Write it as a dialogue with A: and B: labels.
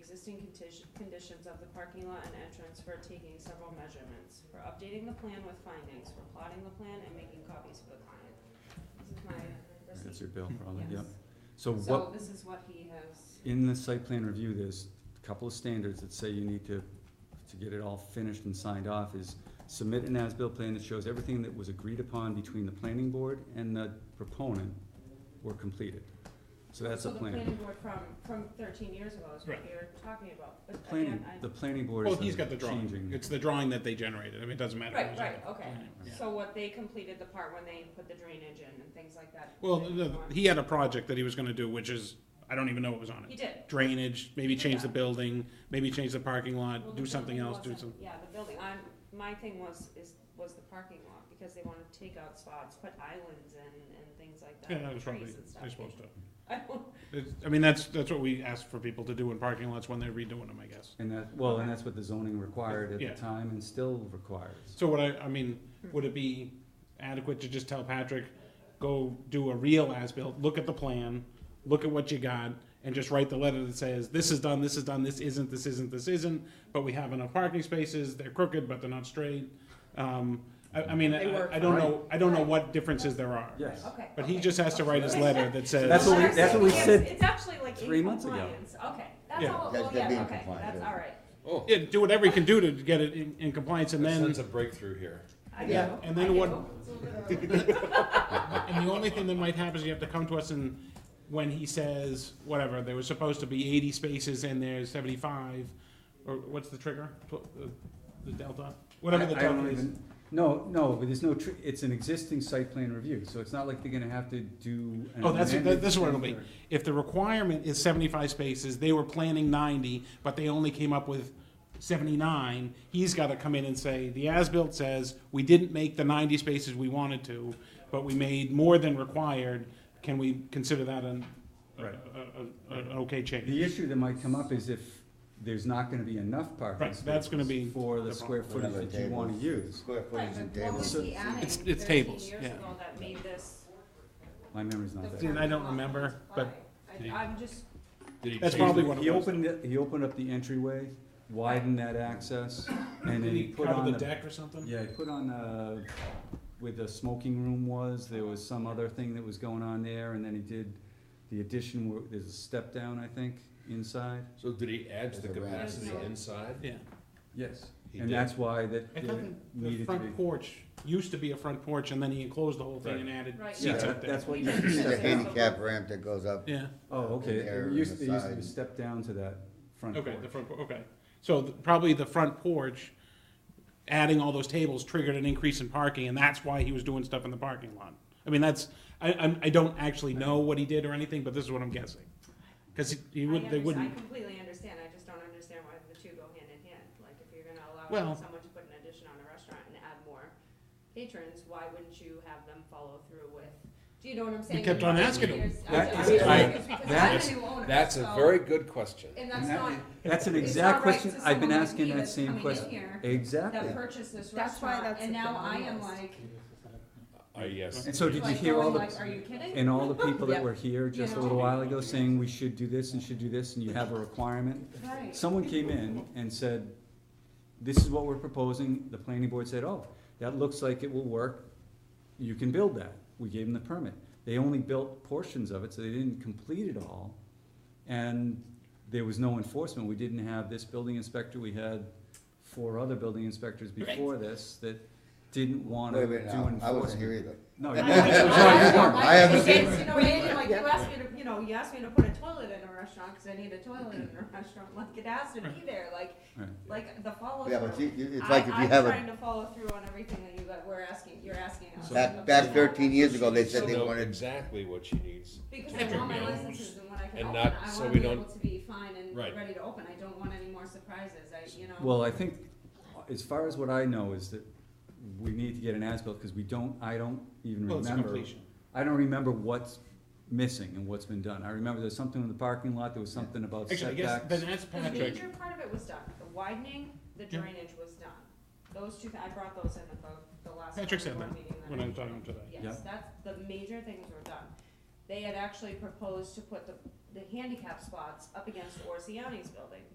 A: existing conti- conditions of the parking lot and entrance for taking several measurements, for updating the plan with findings, for plotting the plan and making copies for the client. This is my
B: That's
A: receipt.
B: your bill probably,
A: Yes.
B: yep. So what,
A: So this is what he has,
B: in the site plan review, there's a couple of standards that say you need to, to get it all finished and signed off is submit an as-built plan that shows everything that was agreed upon between the planning board and the proponent were completed. So that's a
A: so the planning
B: plan.
A: board from, from thirteen years ago is what
C: Right.
A: you're talking about, but
B: Planning,
A: again, I.
B: the planning board
C: Well,
B: is
C: he's got the
B: the
C: drawing.
B: changing.
C: It's the drawing that they generated. I mean, it doesn't matter.
A: Right,
C: who's on
A: right,
C: it.
A: okay.
C: Yeah.
A: So what they completed the part when they put the drainage in and things like that.
C: Well,
A: they
C: the-
A: want.
C: he had a project that he was gonna do, which is, I don't even know what was on
A: He
C: it.
A: did.
C: Drainage, maybe change the
A: Yeah.
C: building, maybe change the parking
A: Well,
C: lot,
A: the
C: do something
A: building
C: else, do
A: wasn't-
C: some,
A: Yeah, the building, I'm, my thing was, is, was the parking lot, because they wanted to take out spots, put islands and, and things like that.
C: yeah, that was probably,
A: trees and stuff.
C: I suppose so.
A: I don't,
C: It's, I mean, that's, that's what we ask for people to do in parking lots when they're redoing them, I guess.
B: And that, well, and that's what the zoning required at
C: Yeah.
B: the time and still requires.
C: So what I, I mean, would it be adequate to just tell Patrick, go do a real as-built, look at the plan, look at what you got, and just write the letter that says, this is done, this is done, this isn't, this isn't, this isn't, but we have enough parking spaces, they're crooked, but they're not straight. Um, I, I mean,
A: They
C: I,
A: work
C: I don't
B: fine.
C: know, I don't know what differences there are.
B: Yes.
A: okay.
C: But he
A: okay.
C: just has to write his
A: Okay.
C: letter that says.
B: That's what we-
A: I'm
B: that's what we
A: saying,
B: said
A: It's it's actually like
B: three
A: in
B: months ago.
A: compliance, okay, that's
C: Yeah.
A: all,
D: That-
A: well,
D: that
A: yeah,
D: being
A: okay,
D: compliant,
A: that's
D: yeah.
A: all right.
E: Oh,
C: Yeah, do whatever you can do to get it in, in compliance and
E: a
C: then.
E: sense of breakthrough here.
A: I
D: Yeah.
A: do,
C: And then
A: I
C: what-
A: do.
C: And the only thing that might happen is you have to come to us and when he says, whatever, there was supposed to be eighty spaces and there's seventy-five, or what's the trigger? Tw- uh, The delta? Whatever the
B: I- I don't
C: delta is.
B: even- No, no, but there's no, tr- it's an existing site plan review, so it's not like they're gonna have to do. an
C: Oh, that's, that-
B: amended
C: this is what it'll
B: thing
C: be.
B: or-
C: If the requirement is seventy-five spaces, they were planning ninety, but they only came up with seventy-nine, he's gotta come in and say, the as-built says, we didn't make the ninety spaces we wanted to, but we made more than required, can we consider that an, a-
B: Right.
C: a- a- a- an okay change?
B: The issue that might come up is if there's not gonna be enough parking
C: Right, that's gonna be
B: spaces for the
C: the
B: square
D: Whatever
B: footage that you
D: tables,
B: wanna use.
D: Square footage and
A: Right, but what
D: tables.
A: was he adding
C: It's- it's
A: thirteen
C: tables,
A: years
C: yeah.
A: ago that made this?
B: My memory's
A: the
B: not
C: See,
B: there.
C: and I don't
A: parking lot
C: remember, but-
A: comply? I, I'm just,
E: Did he
C: That's
E: change
C: probably
E: the-
C: what it
B: He
C: was.
B: opened, it- he opened up the entryway, widened that access, and then
C: Did
B: he
C: he
B: put
C: cover
B: on
C: the
B: the.
C: deck or something?
B: Yeah, he put on, uh, where the smoking room was, there was some other thing that was going on there, and then he did the addition, where, there's a step down, I think, inside.
E: So did he add to the
D: There's a rat.
E: capacity inside?
C: Yeah.
B: Yes,
E: He
B: and
E: did.
B: that's why that
C: I
B: it
C: thought the- the
B: needed to be.
C: front porch used to be a front porch and then he enclosed the whole thing
E: Right.
C: and added
A: Right.
B: Yeah,
C: seats
A: seats
C: up
B: that-
C: there.
B: that's what
A: We
B: you
A: did.
D: There's a
B: said.
D: handicap ramp that goes up.
C: Yeah,
B: Oh, okay,
D: in there
B: it
D: and
B: used,
D: the
B: it used to be
D: side.
B: step down to that front
C: okay,
B: porch.
C: the front, por- okay. So th- probably the front porch, adding all those tables triggered an increase in parking and that's why he was doing stuff in the parking lot. I mean, that's, I, I'm, I don't actually know what he did or anything, but this is what I'm guessing. Cause he- he
A: I
C: would, they
A: understand-
C: wouldn't.
A: I completely understand, I just don't understand why the two go hand in hand, like, if you're gonna allow
C: Well-
A: someone to put an addition on a restaurant and add more patrons, why wouldn't you have them follow through with, do you know what I'm saying?
C: kept on
A: Like,
C: asking him.
A: here's- I-
B: That
A: I'm
B: is-
A: just
E: I-
A: confused because I'm
B: that's-
A: the new owner,
E: That's a
A: so-
E: very good question.
A: And
B: And
A: that's
B: that-
A: not,
B: That's an
A: It's
B: exact
A: not right
B: question,
A: to
B: I've been
A: someone like
B: asking
A: me
B: that
A: that's
B: same
A: coming in
B: question,
A: here that
B: exactly.
A: purchased this
F: That's why
A: restaurant,
F: that's
A: and
F: the
A: now I
F: thing
A: am
F: is-
A: like,
E: Uh, yes.
B: And so did you
A: like,
B: hear all
A: going
B: the,
A: like, are you kidding?
B: and all the people that
F: Yeah.
B: were here just a
A: Yeah.
B: little while ago saying we should do this and should do this and you have a requirement?
A: Right.
B: Someone came in and said, this is what we're proposing, the planning board said, oh, that looks like it will work, you can build that, we gave them the permit. They only built portions of it, so they didn't complete it all, and there was no enforcement, we didn't have this building inspector, we had four other building inspectors before this that didn't wanna
D: Wait a
B: do
D: minute, now,
B: enforcement.
D: I wasn't here either.
B: No, you
A: I
B: weren't.
D: I-
A: know,
D: I have
A: like,
D: the
A: it's, you know, Andy, like, you asked me to, you know, you asked me to put a toilet in a restaurant, cause I need a toilet in a restaurant, like, it has to be there, like,
B: Right.
A: like, the follow
D: Yeah, but
A: through.
D: you, you- it's like if you have
A: I'm
D: a,
A: trying to follow through on everything that you, that we're asking, you're asking us.
D: back, back thirteen years ago, they
E: So
D: said they
E: know
D: wanted,
E: Exactly what she needs.
A: Because I want my licenses and what I can
E: And
A: open,
E: not-
A: I
E: so
A: wanna
E: we
A: be
E: don't-
A: able to be fine and
E: Right.
A: ready to open, I don't want any more surprises, I, you know.
B: Well, I think, as far as what I know, is that we need to get an as-built, because we don't, I don't even
C: Well, it's a
B: remember.
C: completion.
B: I don't remember what's missing and what's been done. I remember there's something in the parking lot, there was something about
C: Actually, I guess,
B: setbacks.
C: then that's
A: The
C: Patrick.
A: major part of it was done, the widening, the
C: Yeah.
A: drainage was done, those two, I brought those in at the, the last.
C: Patrick said
A: planning board
C: that
A: meeting that
C: when
A: I
C: I'm talking today.
B: Yeah.
A: Yes, that's, the major things were done. They had actually proposed to put the, the handicap spots up against Orsiani's building,